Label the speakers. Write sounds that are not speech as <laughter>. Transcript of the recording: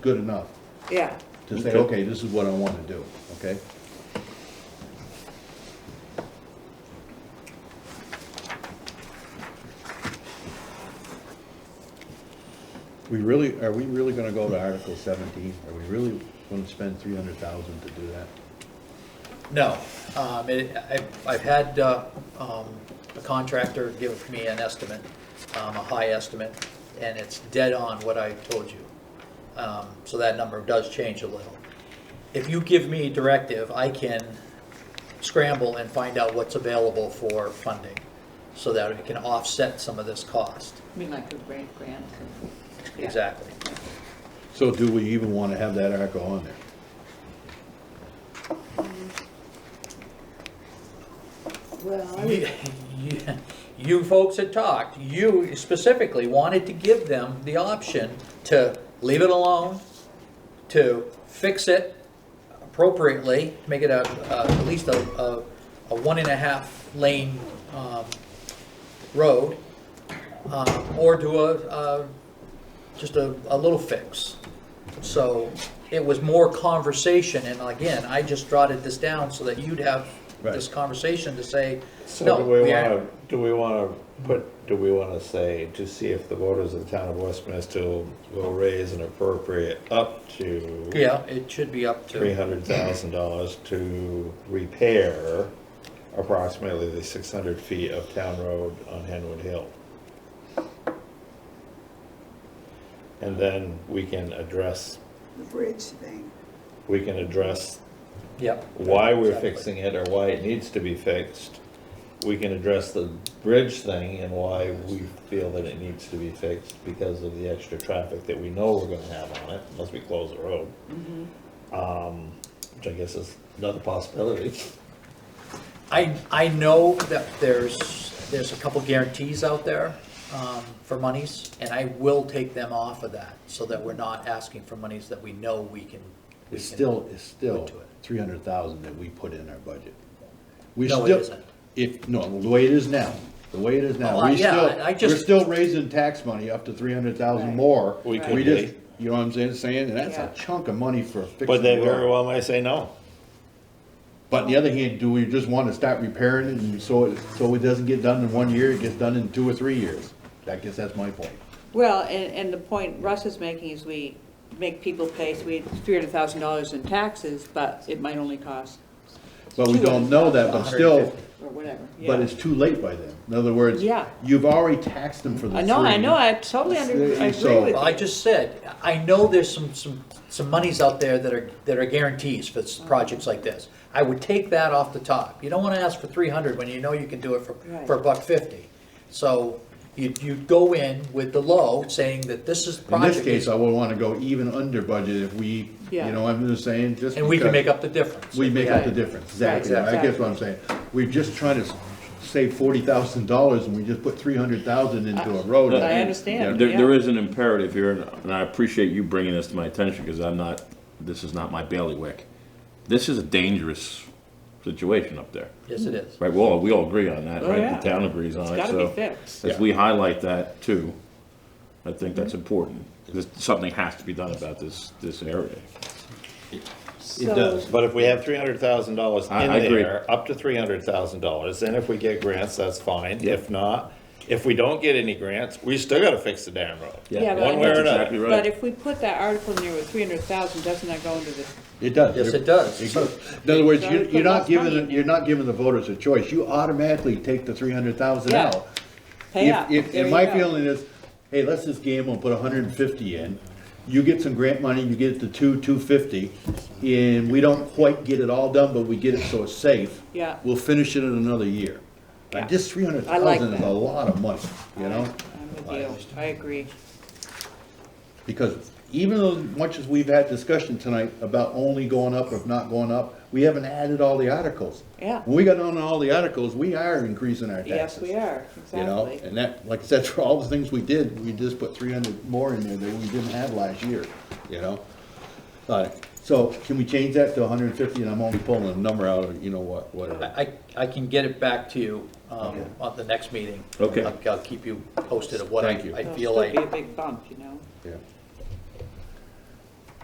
Speaker 1: good enough
Speaker 2: yeah.
Speaker 1: to say,
Speaker 3: Okay.
Speaker 1: okay, this is what I want to do, okay? We really, are we really gonna go to Article seventeen? Are we really gonna spend three hundred thousand to do that?
Speaker 4: No, um, it, I've, I've had, uh, um, a contractor give me an estimate, um, a high estimate, and it's dead on what I told you. Um, so that number does change a little. If you give me directive, I can scramble and find out what's available for funding, so that it can offset some of this cost.
Speaker 2: I mean, like a grant, grant. Yeah.
Speaker 4: Exactly.
Speaker 1: So do we even wanna have that article on there?
Speaker 2: Well, I
Speaker 4: You-
Speaker 2: would-
Speaker 4: you- You folks had talked, you specifically wanted to give them the option to leave it alone, to fix it appropriately, make it a, a- at least a, a, a one and a half lane, um, road, um, or do a, uh, just a, a little fix. So it was more conversation, and again, I just jotted this down so that you'd have this
Speaker 1: Right.
Speaker 4: conversation to say,
Speaker 3: So
Speaker 4: no,
Speaker 3: do we
Speaker 4: we are-
Speaker 3: wanna, do we wanna put, do we wanna say, to see if the voters of the town of Westminster will raise an appropriate up to
Speaker 4: Yeah, it should be up
Speaker 3: three
Speaker 4: to,
Speaker 3: hundred thousand dollars to repair approximately the six hundred feet of town road on Henwood Hill? And then we can address,
Speaker 5: the bridge thing.
Speaker 3: we can address
Speaker 4: yep,
Speaker 3: why we're
Speaker 4: Exactly.
Speaker 3: fixing it or why it needs to be fixed. We can address the bridge thing and why we feel that it needs to be fixed because of the extra traffic that we know we're gonna have on it unless we close the road.
Speaker 2: Mm-hmm.
Speaker 3: Um, which I guess is another
Speaker 6: <laughs>
Speaker 3: possibility.
Speaker 4: I, I know that there's, there's a couple guarantees out there um, for monies, and I will take them off of that, so that we're not asking for monies that we know we can. we
Speaker 1: It's
Speaker 4: can-
Speaker 1: still, it's still
Speaker 4: to it.
Speaker 1: three hundred thousand that we put in our budget. We
Speaker 4: No, it
Speaker 1: still-
Speaker 4: isn't.
Speaker 1: If, no, the way it is now, the way it is
Speaker 4: Oh,
Speaker 1: now,
Speaker 4: I-
Speaker 1: we
Speaker 4: yeah,
Speaker 1: still,
Speaker 4: I- I
Speaker 1: we're
Speaker 4: just-
Speaker 1: still raising tax money up to three hundred thousand more.
Speaker 3: We
Speaker 2: could
Speaker 1: We
Speaker 3: be.
Speaker 1: just, you know what I'm saying, saying, and that's
Speaker 2: Yeah.
Speaker 1: a chunk of money for a fixed
Speaker 3: But they very
Speaker 1: road.
Speaker 3: well may say no.
Speaker 1: But on the other hand, do we just wanna start repairing it and so it, so it doesn't get done in one year, it gets done in two or three years? I guess that's my point.
Speaker 2: Well, and, and the point Russ is making is we make people pay, so we had three hundred thousand dollars in taxes, but it might only cost,
Speaker 1: But we don't know that, but still,
Speaker 4: 250.
Speaker 2: or whatever.
Speaker 1: but it's too late by then. In other words,
Speaker 2: Yeah.
Speaker 1: you've already taxed them for the
Speaker 2: I
Speaker 1: three.
Speaker 2: know, I know, I totally under, I agree
Speaker 1: So-
Speaker 2: with
Speaker 4: Well, I
Speaker 2: you.
Speaker 4: just said, I know there's some, some, some monies out there that are, that are guarantees for s- projects like this. I would take that off the top. You don't wanna ask for three hundred when you know you can do it for,
Speaker 2: Right.
Speaker 4: for a buck fifty. So you, you go in with the low, saying that this is
Speaker 1: In
Speaker 4: project.
Speaker 1: this case, I would wanna go even under budget if we, you
Speaker 2: Yeah.
Speaker 1: know, what I'm just saying, just.
Speaker 4: And we can
Speaker 1: because-
Speaker 4: make up the difference.
Speaker 1: We make up the
Speaker 2: Right.
Speaker 1: difference, exactly,
Speaker 4: Right,
Speaker 1: I guess what I'm saying, we're just trying to save forty thousand dollars and we just put three hundred thousand into a road.
Speaker 2: I understand,
Speaker 6: There, there
Speaker 2: yeah.
Speaker 6: is an imperative here, and- and I appreciate you bringing this to my attention, because I'm not, this is not my bailiwick. This is a dangerous situation up there,
Speaker 4: Yes, it is.
Speaker 6: right? Well, we all agree on that,
Speaker 2: Oh, yeah.
Speaker 6: right? The town agrees on
Speaker 2: It's
Speaker 6: it, so.
Speaker 2: gotta be fixed. Mm-hmm.
Speaker 6: If we highlight that too, I think that's important, 'cause something has to be done about this, this area.
Speaker 1: It
Speaker 2: So-
Speaker 1: does,
Speaker 3: But if we have three hundred thousand dollars
Speaker 6: I-
Speaker 3: in
Speaker 6: I agree.
Speaker 3: there, up to three hundred thousand dollars, then if we get grants, that's fine.
Speaker 6: Yeah.
Speaker 3: If not, if we don't get any grants, we still gotta fix the damn road.
Speaker 2: Yeah, but
Speaker 3: One way or
Speaker 6: That's
Speaker 3: another.
Speaker 6: exactly right.
Speaker 2: But if we put that article in there with three hundred thousand, doesn't that go into the,
Speaker 1: it does.
Speaker 4: Yes, it does.
Speaker 1: It goes- In other words,
Speaker 2: So we
Speaker 1: you,
Speaker 2: put
Speaker 1: you're
Speaker 2: less
Speaker 1: not
Speaker 2: money in
Speaker 1: giving,
Speaker 2: there.
Speaker 1: you're not giving the voters a choice, you automatically take the three hundred thousand
Speaker 2: Yeah.
Speaker 1: out.
Speaker 2: pay
Speaker 1: If-
Speaker 2: up?
Speaker 1: If,
Speaker 2: There
Speaker 1: and
Speaker 2: you
Speaker 1: my
Speaker 2: go.
Speaker 1: feeling is, hey, let's just gamble and put hundred and fifty in. You get some grant money, you get it to two, two fifty, and we don't quite get it all done, but we get it so it's safe.
Speaker 2: Yeah.
Speaker 1: We'll finish it in another year. Like,
Speaker 2: Yeah.
Speaker 1: this three hundred
Speaker 2: I like
Speaker 1: thousand is a
Speaker 2: that.
Speaker 1: lot of money, you know?
Speaker 2: I'm with you, I agree.
Speaker 1: Because even though much as we've had discussion tonight about only going up if not going up, we haven't added all the articles.
Speaker 2: Yeah.
Speaker 1: When we got on all the articles, we are increasing our taxes.
Speaker 2: Yes, we are,
Speaker 1: You know,
Speaker 2: exactly.
Speaker 1: and that, like I said, for all the things we did, we just put three hundred more in there that we didn't have last year, you know? But, so can we change that to hundred and fifty and I'm only pulling a number out of, you know what, whatever.
Speaker 4: I, I can get it back to you, um, on the next meeting.
Speaker 6: Okay.
Speaker 4: I'll, I'll keep you posted of what I,
Speaker 1: Thank you.
Speaker 4: I
Speaker 2: It'll
Speaker 4: feel
Speaker 2: still
Speaker 4: like.
Speaker 2: Be a big bump, you know?
Speaker 1: Yeah.